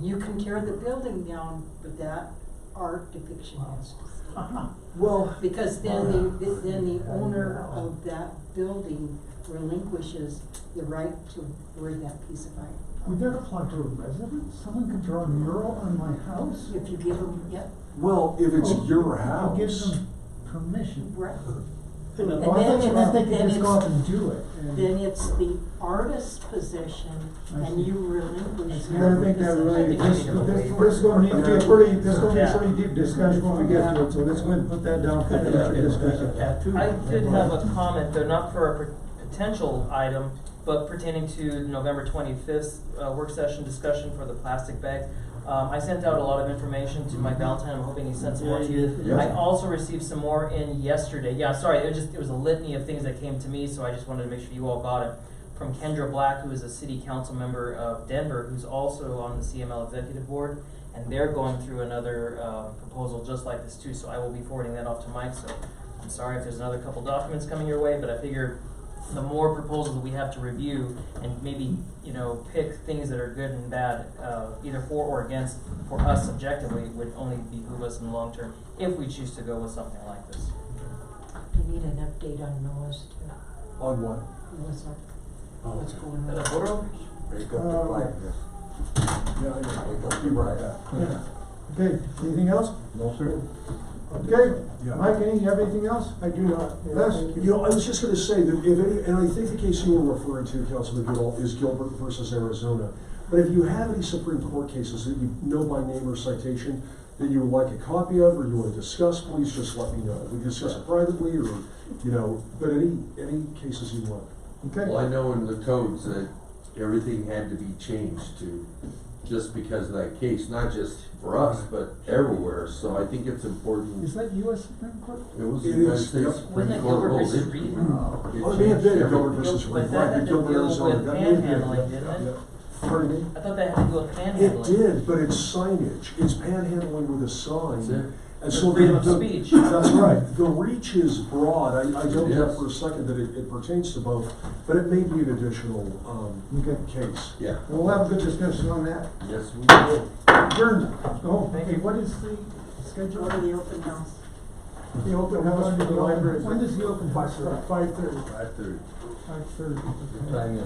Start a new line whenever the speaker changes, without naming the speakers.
You can tear the building down, but that art depiction has to stay.
Well,
Because then the, then the owner of that building relinquishes the right to wear that piece of art.
Would that apply to a resident? Someone could draw a mural on my house?
If you give them, yep,
well, if it's
Oh,
your
I'll give
house,
them permission.
right.
Well,
And
I
then
thought you
it-
meant they could
then
just go
it's-
out and do it. and-
Then it's the artist's possession and you relinquish
I
And I
your
think that really, this, this,
possession.
this is gonna need to be a pretty, this is gonna be a pretty deep discussion when we get to it, so let's go ahead and put that down for future discussion.
I did have a comment, though, not for a pot- potential item, but pertaining to November twenty-fifth, uh, work session discussion for the plastic bags. Um, I sent out a lot of information to Mike Valentine, I'm hoping he sent some more to you.
Yeah.
I also received some more in yesterday, yeah, sorry, it was just, it was a litany of things that came to me, so I just wanted to make sure you all got it. From Kendra Black, who is a city council member of Denver, who's also on the CML executive board, and they're going through another, uh, proposal just like this too, so I will be forwarding that off to Mike, so I'm sorry if there's another couple documents coming your way, but I figure the more proposals that we have to review and maybe, you know, pick things that are good and bad, uh, either for or against, for us subjectively, would only behoove us in the long term if we choose to go with something like this.
You need an update on Noah's too.
on what?
Noah's Ark. what's going
Is that a
on.
photo?
Break up the blackness.
Yeah, yeah,
It'll be right up.
yeah.
Okay, anything else?
No, sir.
Okay,
Yeah.
Mike, any, you have anything else?
I do not.
Les?
You know, I was just gonna say that if, any- and I think the case you were referring to, Councilman Goodall, is Gilbert versus Arizona. But if you have any Supreme Court cases that you know by name or citation that you would like a copy of or you wanna discuss, please just let me know. We can discuss it privately or, you know, but any, any cases you want.
Okay,
Well, I know in the codes that everything had to be changed to, just because of that case, not just for us, but everywhere, so I think it's important.
Is that US Supreme Court?
It was the
It
United
is,
States
yep.
Wasn't
Supreme
that
Court
Gilbert
rules.
versus
It-
Reed?
Uh,
Wow. It
Oh, it may have
changed
been Gilbert
everything.
versus
But
Reed,
that
right,
had to
but Gilbert,
deal
Arizona,
with
that may have been.
panhandling, didn't it?
Yeah. Pardon me?
I thought that had to do with
It
panhandling.
did, but it's signage. It's panhandling with a sign.
That's it.
And
For
so
freedom
the-
of
the-
speech.
That's right. The reach is broad. I, I don't doubt
Yes.
for a second that it, it pertains to both, but it may be an additional, um,
okay,
case.
Yeah,
we'll have a good discussion on that.
yes, we did.
Adjourned, go home.
Thank
Hey,
you.
what is the schedule
Go to the open house.
the open house for the library?
When does the open house start?
Five thirty.
Five thirty.
Uh,
Five thirty.
Good time, yeah.